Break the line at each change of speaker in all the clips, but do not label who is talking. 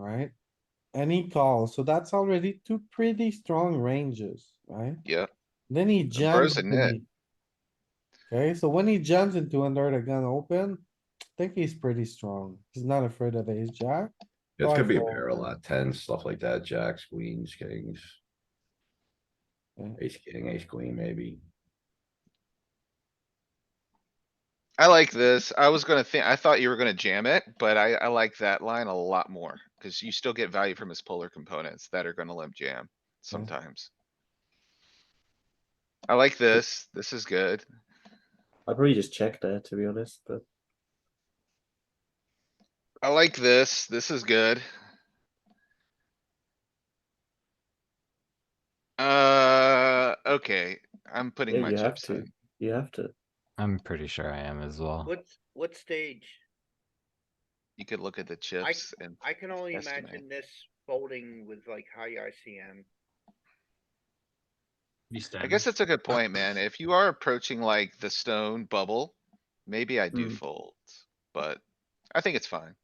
right? Any call, so that's already two pretty strong ranges, right?
Yeah,
Then he jumps.
Burr's a nit.
into- Okay, so when he jumps into under the gun open, I think he's pretty strong. He's not afraid of ace jack.
It's gonna be a
Rifle.
pair a lot, ten, stuff like that, jacks, queens, kings.
Yeah.
Ace king, ace queen, maybe.
I like this. I was gonna think, I thought you were gonna jam it, but I, I like that line a lot more, cuz you still get value from his polar components that are gonna limp
Mm-hmm.
jam sometimes. I like this. This is good.
I'd probably just check there to be honest, but
I like this. This is good. Uh, okay, I'm putting
Yeah,
my
you have
chips
to.
in.
you have to.
I'm pretty sure I am as well.
What, what stage?
You could look at the chips and
I can only
Estimate.
imagine this folding with like high ICM.
I guess that's a good point, man. If you are approaching like the stone bubble, maybe I do
Mm.
fold, but I think it's fine.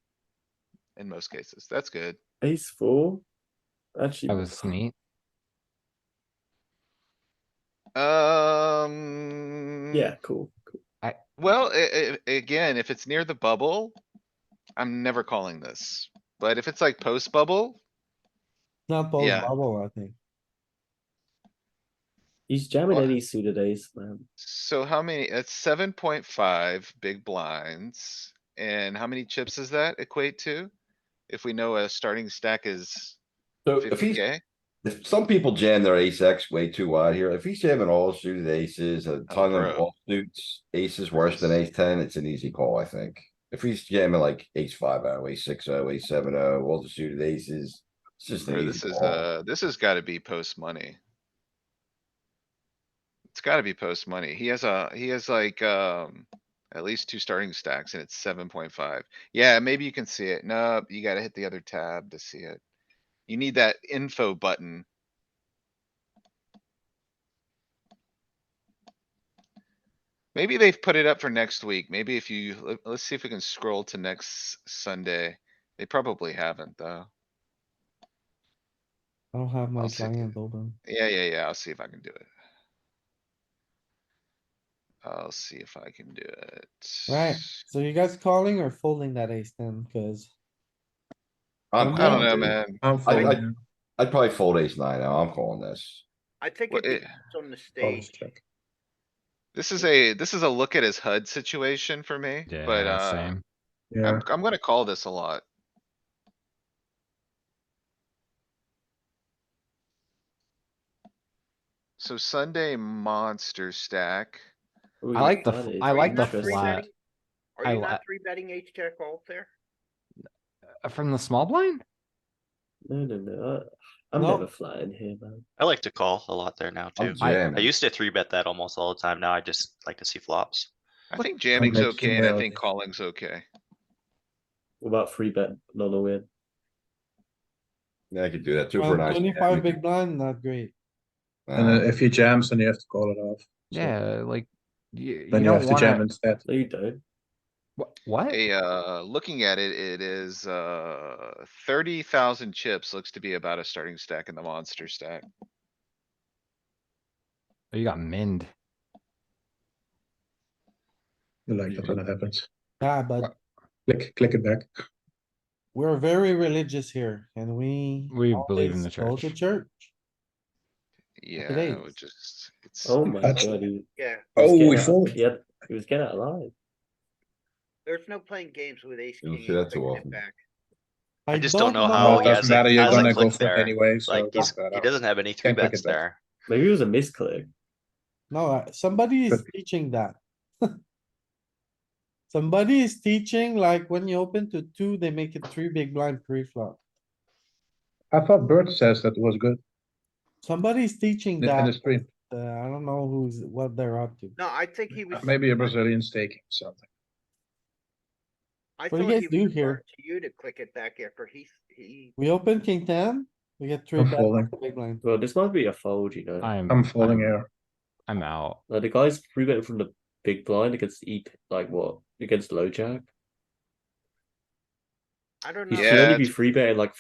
In most cases, that's good.
Ace four. Actually,
That was neat.
Um.
yeah, cool. cool.
Well, i- i- again, if it's near the bubble, I'm never calling this, but if it's like post bubble,
Not both
Yeah.
bubble, I think.
He's jamming
Or-
any suited ace, man.
so how many, that's seven point five big blinds. And how many chips does that equate to? If we know a starting stack is
So if
fifty
he's,
K?
if some people jam their ace X way too wide here, if he's jamming all suited aces, a ton of
bro.
all suits, aces worse than ace ten, it's an easy call, I think. If he's jamming like ace five oh, ace six oh, ace seven oh, all the suited aces, it's just
Bro,
an
this
easy
is,
call.
uh, this has gotta be post money. It's gotta be post money. He has a, he has like, um, at least two starting stacks and it's seven point five. Yeah, maybe you can see it. No, you gotta hit the other tab to see it. You need that info button. Maybe they've put it up for next week. Maybe if you, let- let's see if we can scroll to next Sunday. They probably haven't though.
I don't have my
I'll see.
client open.
Yeah, yeah, yeah, I'll see if I can do it. I'll see if I can do it.
Right. So you guys calling or folding that ace ten, cuz
I'm-
I don't
I'm-
know, man.
I'm
I-
folding. now.
I'd probably fold ace nine now, I'm calling this.
I think
Well,
it
it-
depends on
Oh,
the
I'll just
stage.
check.
This is a, this is a look at his HUD situation for me,
Yeah,
but, uh,
same.
Yeah,
I'm, I'm gonna call this a lot. So Sunday monster stack.
Ooh,
I like the
that
f-
is
I like the
interesting.
flat. I
Are you
li-
not three betting H jack all there?
Uh, From the small blind?
No, no, no. I, I'm
No.
never flat in here, man.
I like to call a lot there now too.
I'm
I-
I
jamming.
used to three bet that almost all the time. Now I just like to see flops.
I think jamming's
makes
okay and I
sense.
think calling's okay.
What about free bet non a win?
Yeah, I could do that, two for nine.
twenty-five big blind, not great.
and
Um,
Uh,
then if he jams, then you have to call it off. So
Yeah, like, you, you
Then you
don't
have to jam
wanna,
instead.
No, you don't.
wh- what?
A, uh, looking at it, it is, uh, thirty thousand chips looks to be about a starting stack in the monster stack.
Oh, You got min.
You like that when it happens.
Yeah, Ah, but
Click, click it back.
we're very religious here and we.
We believe in
always
the
go to
church.
Church. it
Yeah, it
is.
would just, it's,
Oh my
That's-
god. He, he
Yeah,
was
Oh,
getting
we
out-
fold.
Yeah, he was getting out alive.
there's no playing games with ace.
You don't
king
see
and
that too
bringing it
often.
back.
I just don't know how
No,
Oh,
it
he has
doesn't
a-
matter, you're
has a
gonna go
click
for it
there.
anyway, so.
Like
it
he's,
doesn't matter.
he doesn't have any three
Can't click
bets
it back.
there.
Maybe it was a misclick.
No, uh, somebody is
But-
teaching that. Somebody is teaching like when you open to two, they make it three big blind three flop.
I thought Bert says that was good
Somebody's teaching
in in the
that.
stream.
uh, I don't know who's, what they're up to.
No, I think he was.
Maybe a Brazilian staking or something.
I
do you
thought
guys
he
do
was
here?
referring to you to click it back after he, he,
We open king ten, we get three
I'm
bet,
folding.
big blind.
Well, this might be a fold, you know.
I'm,
I'm folding
I'm-
here.
I'm out.
Like the guy's free betting from the big blind against E, like what? Against low jack?
I don't
He
know.
should
Yeah,
only be free betting like